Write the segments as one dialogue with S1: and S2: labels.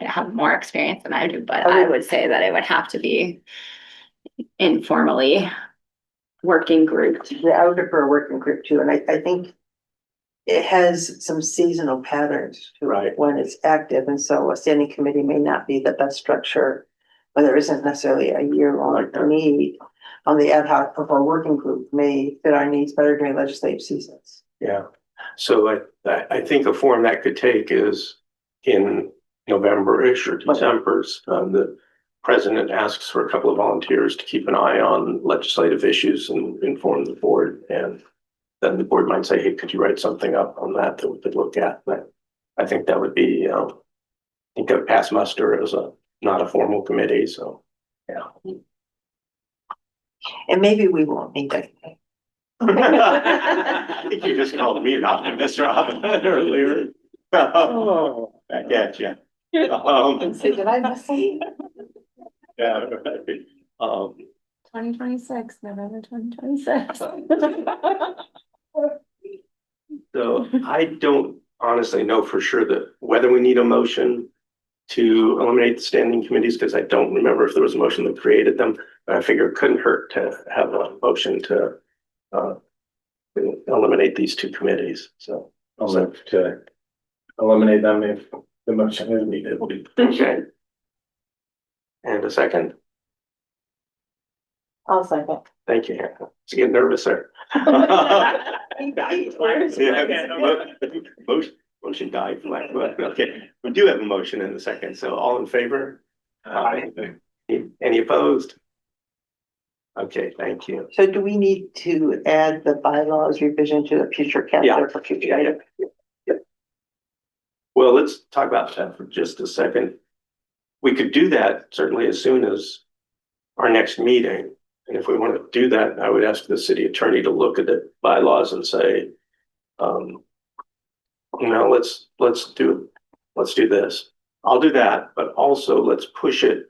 S1: have more experience than I do, but I would say that it would have to be informally working group.
S2: Yeah, I would prefer a working group too, and I, I think it has some seasonal patterns to it
S3: Right.
S2: when it's active, and so a standing committee may not be the best structure. But there isn't necessarily a year-long
S3: Like that.
S2: need on the ad hoc of our working group may fit our needs better during legislative seasons.
S3: Yeah, so I, I, I think a form that could take is in November-ish or December's, um, the president asks for a couple of volunteers to keep an eye on legislative issues and inform the board, and then the board might say, hey, could you write something up on that that we could look at? But I think that would be, you know, I think of pass muster as a, not a formal committee, so.
S2: And maybe we won't need that.
S3: I think you just called me an optimist, Rob, earlier.
S2: Oh.
S3: I get you. Um,
S4: So did I miss something?
S3: yeah, right. Um,
S4: Twenty twenty-six, November twenty twenty-six.
S3: so I don't honestly know for sure that whether we need a motion to eliminate the standing committees, because I don't remember if there was a motion that created them, but I figure it couldn't hurt to have a motion to uh to eliminate these two committees, so.
S5: I'll move to eliminate them if the motion is needed.
S3: Okay. And a second,
S2: I'll second.
S3: thank you, Hannah. It's getting nervous there. Yeah, mo- Motion, motion died, for lack of a- okay, we do have a motion in a second, so all in favor? Aye. Any opposed? Okay, thank you.
S2: So do we need to add the bylaws revision to the future
S3: Yeah.
S2: calendar for future?
S3: Yeah, yeah, yeah. Well, let's talk about that for just a second. We could do that certainly as soon as our next meeting. And if we want to do that, I would ask the city attorney to look at the bylaws and say, um, you know, let's, let's do, let's do this. I'll do that, but also let's push it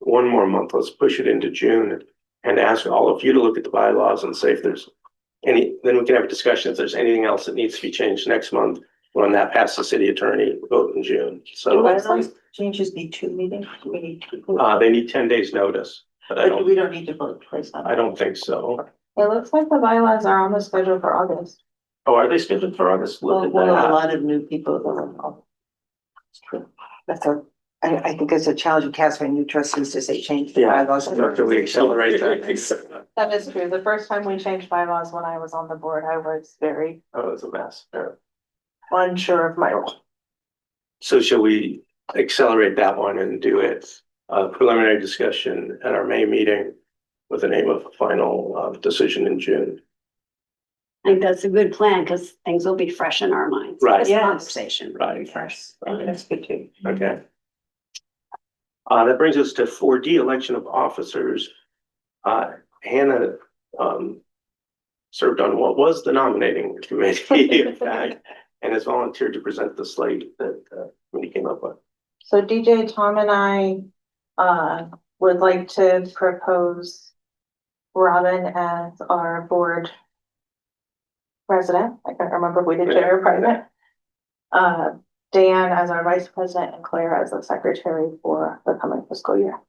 S3: one more month. Let's push it into June and ask all of you to look at the bylaws and say if there's any, then we can have a discussion if there's anything else that needs to be changed next month. When that passes the city attorney, we vote in June.
S2: Do
S3: So,
S2: bylaws changes need two meetings? Do we need two?
S3: uh, they need ten days notice, but I
S2: But
S3: don't,
S2: we don't need to vote twice on
S3: I
S2: it.
S3: don't think so.
S4: It looks like the bylaws are on the schedule for August.
S3: Oh, are they scheduled for August? Look
S2: Well,
S3: at
S2: well, a
S3: that.
S2: lot of new people that are involved. It's true. That's a, I, I think it's a challenge you cast for new trustees to say change the
S3: Yeah.
S2: bylaws.
S3: After we accelerate that.
S4: That is true. The first time we changed bylaws when I was on the board, I was very
S3: Oh, it's a mess. Yeah.
S4: unsure of my role.
S3: So shall we accelerate that one and do it, uh, preliminary discussion at our May meeting with the aim of a final, uh, decision in June?
S6: I think that's a good plan because things will be fresh in our minds.
S3: Right.
S6: This
S2: Yes.
S6: Conversation.
S3: Right.
S6: Fresh.
S2: That's good too.
S3: Okay. Uh, that brings us to four D, election of officers. Uh, Hannah, um, served on what was the nominating committee, in fact, and has volunteered to present the slate that, uh, committee came up with.
S4: So DJ, Tom and I, uh, would like to propose Robin as our board president. I can't remember if we did chair or president. Uh, Dan as our vice president and Claire as the secretary for the coming fiscal year.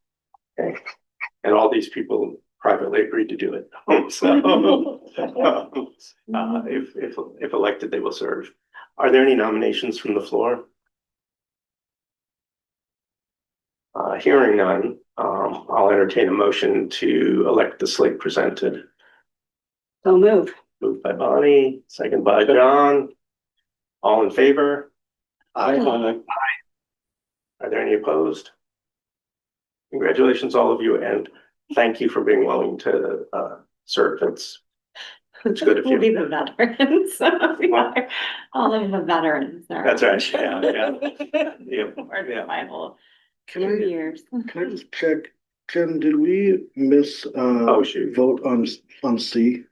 S3: And all these people privately agreed to do it. So, uh, if, if, if elected, they will serve. Are there any nominations from the floor? Uh, hearing none, um, I'll entertain a motion to elect the slate presented.
S6: So move.
S3: Moved by Bonnie, second by John. All in favor?
S5: Aye.
S3: Are there any opposed? Congratulations, all of you, and thank you for being willing to uh serve. It's, it's good of
S6: We'll be
S3: you.
S6: the veterans. We are All of the veterans. are-
S3: That's right, yeah, yeah. Yep,
S6: Or the
S3: yeah.
S6: final
S7: Can
S6: few
S7: I,
S6: years.
S7: can I just check, Jen, did we miss, uh,
S3: Oh, shoot.
S7: vote on, on C?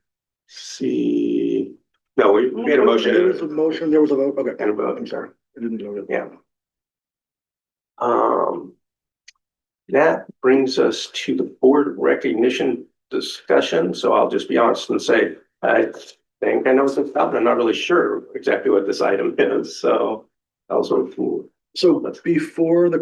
S3: See, no, we we had a
S7: There was a
S3: motion
S7: motion, there was a vote, okay.
S3: and a vote.
S7: I'm sorry, I didn't know that.
S3: Yeah. Um, that brings us to the board recognition discussion, so I'll just be honest and say, I think I know what's about, but I'm not really sure exactly what this item is, so. I'll sort of
S7: So before the